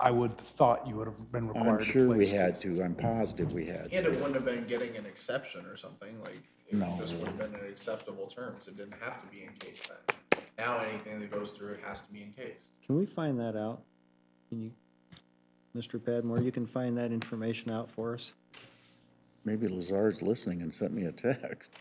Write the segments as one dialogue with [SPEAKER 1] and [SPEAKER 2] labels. [SPEAKER 1] I would thought you would have been required
[SPEAKER 2] I'm
[SPEAKER 1] to place.
[SPEAKER 2] sure we had to, I'm positive we had.
[SPEAKER 3] And it wouldn't have been getting an exception or something, like, it
[SPEAKER 2] No.
[SPEAKER 3] just would have been in acceptable terms, it didn't have to be encased then. Now, anything that goes through it has to be encased.
[SPEAKER 4] Can we find that out? Can you, Mr. Padmore, you can find that information out for us?
[SPEAKER 2] Maybe Lazard's listening and sent me a text.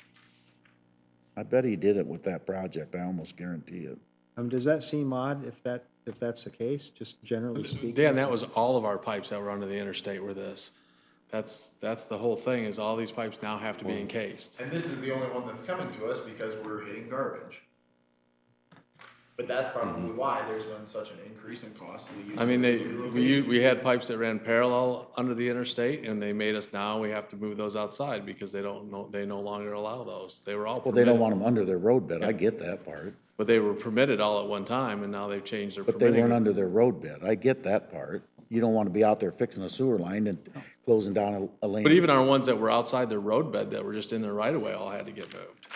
[SPEAKER 2] I bet he did it with that project, I almost guarantee it.
[SPEAKER 4] Um, does that seem odd if that, if that's the case, just generally speaking?
[SPEAKER 5] Dan, that was all of our pipes that were under the interstate were this. That's, that's the whole thing, is all these pipes now have to be encased.
[SPEAKER 3] And this is the only one that's coming to us because we're hitting garbage. But that's probably why there's been such an increase in cost. of the
[SPEAKER 5] Mm-hmm. I mean, they,
[SPEAKER 3] utility
[SPEAKER 5] we, u-
[SPEAKER 3] relocation.
[SPEAKER 5] we had pipes that ran parallel under the interstate, and they made us now, we have to move those outside because they don't, know they no longer allow those. They were all
[SPEAKER 2] Well, they don't
[SPEAKER 5] permitted,
[SPEAKER 2] want them under their roadbed, I get that part,
[SPEAKER 5] but they were permitted all at one time, and now they've changed their
[SPEAKER 2] but they weren't
[SPEAKER 5] permitting.
[SPEAKER 2] under their roadbed, I get that part. You don't want to be out there fixing a sewer line and closing down a a lane.
[SPEAKER 5] But even our ones that were outside their roadbed that were just in their right of way all had to get moved.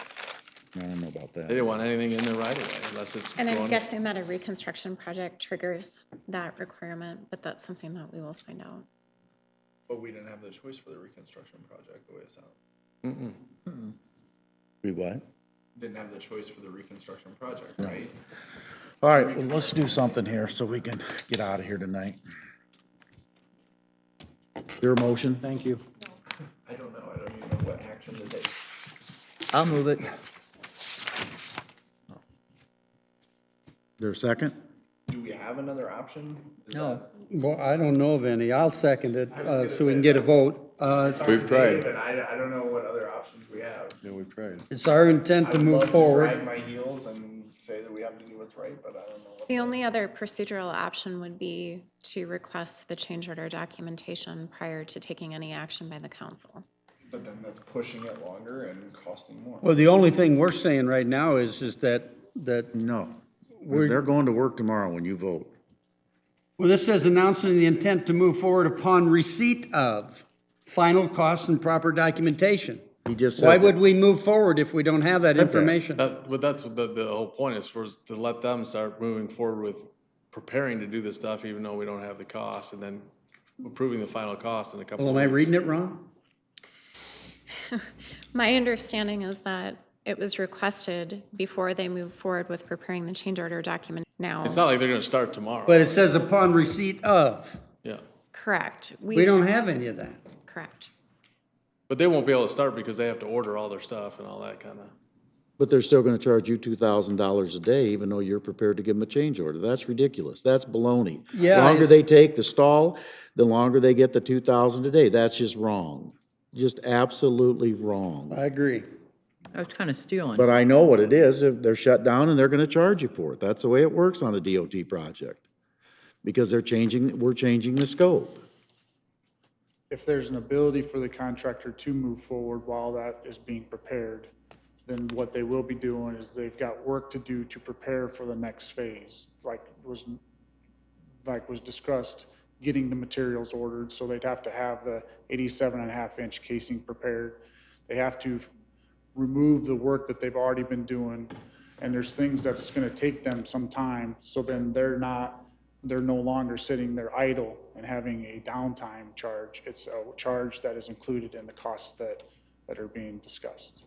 [SPEAKER 2] I don't know about
[SPEAKER 5] They
[SPEAKER 2] that.
[SPEAKER 5] didn't want anything in their right of way unless it's
[SPEAKER 6] And I'm
[SPEAKER 5] going.
[SPEAKER 6] guessing that a reconstruction project triggers that requirement, but that's something that we will find out.
[SPEAKER 3] But we didn't have the choice for the reconstruction project, the way it sounds.
[SPEAKER 5] Mm-mm.
[SPEAKER 2] We what?
[SPEAKER 3] Didn't have the choice for the reconstruction project, right?
[SPEAKER 2] All right, well, let's do something here so we can get out of here tonight. Your motion?
[SPEAKER 4] Thank you.
[SPEAKER 3] I don't know, I don't even know what action to take.
[SPEAKER 7] I'll move it.
[SPEAKER 2] There a second?
[SPEAKER 3] Do we have another option? Is
[SPEAKER 7] No.
[SPEAKER 3] that-
[SPEAKER 8] Well, I don't know of any. I'll second it, uh, so we can get a vote. Uh,
[SPEAKER 3] We've tried. But I, I don't know what other options we have.
[SPEAKER 8] It's our intent
[SPEAKER 3] I
[SPEAKER 8] to
[SPEAKER 3] would love
[SPEAKER 8] move
[SPEAKER 3] Drag
[SPEAKER 8] forward.
[SPEAKER 3] my heels and say that we have to do what's right, but I don't know. what-
[SPEAKER 6] The only other procedural option would be to request the change order documentation prior to taking any action by the council.
[SPEAKER 3] But then that's pushing it longer and costing more.
[SPEAKER 8] Well, the only thing we're saying right now is, is that, that,
[SPEAKER 2] No. They're going to work tomorrow when you vote.
[SPEAKER 8] well, this says announcing the intent to move forward upon receipt of final costs and proper documentation.
[SPEAKER 2] He just said.
[SPEAKER 8] Why
[SPEAKER 2] that.
[SPEAKER 8] would we move forward if we don't have that information?
[SPEAKER 5] That, but that's the, the whole point is for us to let them start moving forward with preparing to do this stuff, even though we don't have the cost, and then approving the final cost in a couple
[SPEAKER 8] Well,
[SPEAKER 5] of
[SPEAKER 8] am I
[SPEAKER 5] weeks.
[SPEAKER 8] reading it wrong?
[SPEAKER 6] My understanding is that it was requested before they move forward with preparing the change order document now.
[SPEAKER 5] It's not like they're gonna start tomorrow.
[SPEAKER 8] But it says upon receipt of.
[SPEAKER 5] Yeah,
[SPEAKER 6] Correct.
[SPEAKER 8] We don't have any of that.
[SPEAKER 6] Correct.
[SPEAKER 5] but they won't be able to start because they have to order all their stuff and all that kinda.
[SPEAKER 2] But they're still gonna charge you two thousand dollars a day, even though you're prepared to give them a change order. That's ridiculous. That's baloney.
[SPEAKER 8] Yeah,
[SPEAKER 2] The Longer
[SPEAKER 8] it's-
[SPEAKER 2] they take the stall, the longer they get the two thousand a day. That's just wrong. Just absolutely wrong.
[SPEAKER 8] I agree.
[SPEAKER 7] I was kind of stealing.
[SPEAKER 2] But I know what it is. If they're shut down and they're gonna charge you for it. That's the way it works on a DOT project. Because they're changing, we're changing the scope.
[SPEAKER 1] If there's an ability for the contractor to move forward while that is being prepared, then what they will be doing is they've got work to do to prepare for the next phase, like was, like was discussed, getting the materials ordered, so they'd have to have the 87 and a half inch casing prepared. They have to remove the work that they've already been doing. And there's things that's gonna take them some time, so then they're not, they're no longer sitting there idle and having a downtime charge. It's a charge that is included in the costs that, that are being discussed.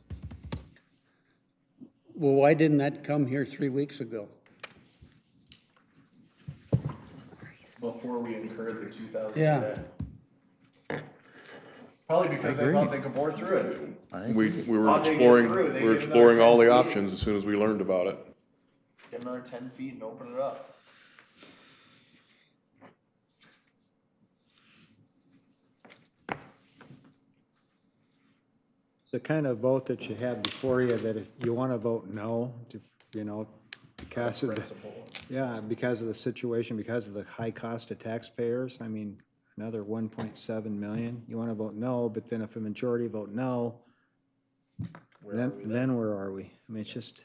[SPEAKER 8] Well, why didn't that come here three weeks ago?
[SPEAKER 3] Before we incurred the two thousand.
[SPEAKER 8] Yeah.
[SPEAKER 3] Probably because they thought they could bore through it.
[SPEAKER 9] We, we were
[SPEAKER 3] How'd they get
[SPEAKER 9] exploring,
[SPEAKER 3] through? They
[SPEAKER 9] we were
[SPEAKER 3] gave another
[SPEAKER 9] exploring all the
[SPEAKER 3] 10 feet?
[SPEAKER 9] options as soon as we learned about it.
[SPEAKER 3] Get another ten feet and open it up.
[SPEAKER 4] The kind of vote that you had before you, that if you want to vote no, to, you know, because of the, yeah, because of the situation, because of the high cost to taxpayers, I mean, another 1.7 million. You want to vote no, but then if a majority vote no, then, then where are we? I mean, it's just.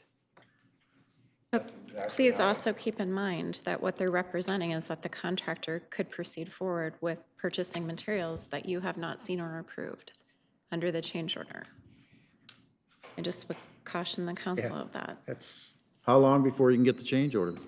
[SPEAKER 6] Please also keep in mind that what they're representing is that the contractor could proceed forward with purchasing materials that you have not seen or approved under the change order. I just would caution the council of that.
[SPEAKER 8] That's.
[SPEAKER 2] How long before you can get the change order?